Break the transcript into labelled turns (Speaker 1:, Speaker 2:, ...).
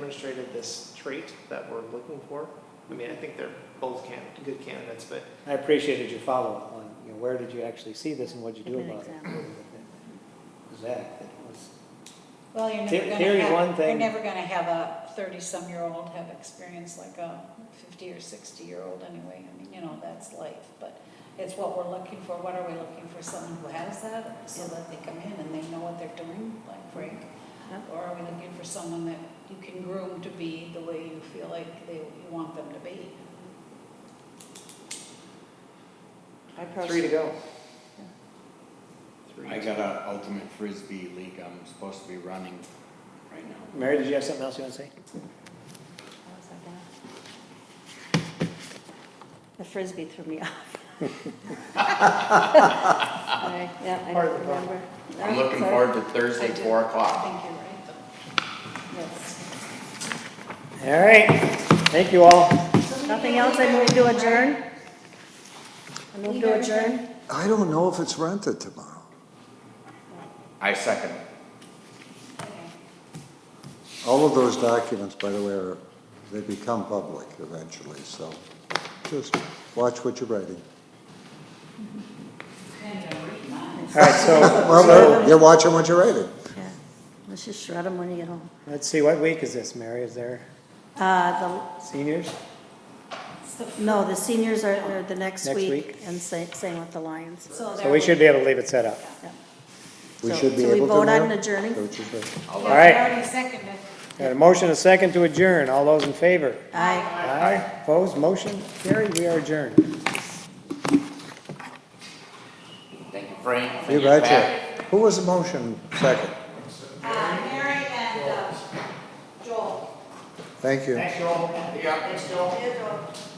Speaker 1: demonstrated this trait that we're looking for. I mean, I think they're both can, good candidates, but
Speaker 2: I appreciated your follow-up on, you know, where did you actually see this and what'd you
Speaker 3: Give
Speaker 2: do
Speaker 3: an
Speaker 2: about it?
Speaker 3: example.
Speaker 2: Zach, it was,
Speaker 4: Well, you're never
Speaker 2: There- there
Speaker 4: gonna
Speaker 2: is one
Speaker 4: have, you're
Speaker 2: thing-
Speaker 4: never gonna have a thirty-some-year-old have experience like a fifty or sixty-year-old anyway. I mean, you know, that's life, but it's what we're looking for. What are we looking for? Someone who has that, so that they come in and they know what they're doing, like Frank?
Speaker 3: Yeah.
Speaker 4: Or are we looking for someone that you can groom to be the way you feel like they, you want them to be?
Speaker 3: I
Speaker 1: three to
Speaker 3: personally,
Speaker 1: go.
Speaker 3: Yeah.
Speaker 1: Three
Speaker 5: I
Speaker 1: to
Speaker 5: got a ultimate frisbee league I'm supposed to be running right now.
Speaker 2: Mary, did you have something else you want to say?
Speaker 3: How was I gonna- The frisbee threw me off. I- Yeah, I
Speaker 1: Part
Speaker 3: don't
Speaker 1: of the problem.
Speaker 3: remember.
Speaker 5: I'm
Speaker 3: No,
Speaker 5: looking
Speaker 3: sorry.
Speaker 5: forward to Thursday,
Speaker 4: I do.
Speaker 5: four
Speaker 4: I
Speaker 5: o'clock.
Speaker 4: think you're right, though.
Speaker 3: Yes.
Speaker 2: All right, thank you all.
Speaker 3: Nothing else, I move to adjourn? I move to adjourn?
Speaker 6: I don't know if it's rented tomorrow.
Speaker 5: I second.
Speaker 6: All of those documents, by the way, are, they become public eventually, so just watch what you're writing.
Speaker 5: uh,
Speaker 2: All right, so
Speaker 6: Well, you're watching what you're writing.
Speaker 3: Yeah. Let's just shred them when you get home.
Speaker 2: let's see, what week is this, Mary? Is there
Speaker 3: Uh,
Speaker 2: seniors?
Speaker 3: the, no, the seniors are, are the next
Speaker 2: Next
Speaker 3: week,
Speaker 2: week?
Speaker 3: and same, same with the Lions.
Speaker 2: So we should be able to leave it set up.
Speaker 3: Yeah.
Speaker 6: We
Speaker 3: So-
Speaker 6: should be
Speaker 3: so we
Speaker 6: able to.
Speaker 3: vote on
Speaker 6: now?
Speaker 3: adjourning?
Speaker 6: Vote is right.
Speaker 5: All
Speaker 2: All right.
Speaker 4: Already seconded.
Speaker 2: Got a motion, a second to adjourn. All those in favor?
Speaker 3: Aye.
Speaker 2: Aye, opposed, motion carried, we are adjourned.
Speaker 5: Thank you, Frank. for
Speaker 6: You
Speaker 5: your
Speaker 6: betcha.
Speaker 5: back.
Speaker 6: Who was the motion second?
Speaker 4: Uh, Mary and uh, Joel.
Speaker 6: Thank you.
Speaker 1: Thanks, Joel. Yeah, thanks, Joel.